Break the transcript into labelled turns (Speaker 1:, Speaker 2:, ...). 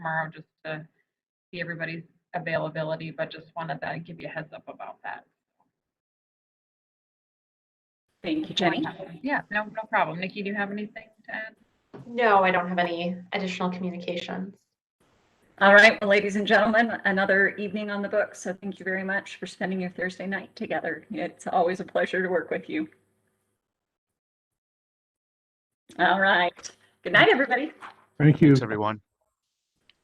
Speaker 1: tomorrow just to see everybody's availability, but just wanted to give you a heads up about that.
Speaker 2: Thank you, Jenny.
Speaker 1: Yeah, no, no problem. Nikki, do you have anything to add?
Speaker 3: No, I don't have any additional communications.
Speaker 2: All right, well, ladies and gentlemen, another evening on the books. So thank you very much for spending your Thursday night together. It's always a pleasure to work with you. All right. Good night, everybody.
Speaker 4: Thank you.
Speaker 5: Thanks, everyone.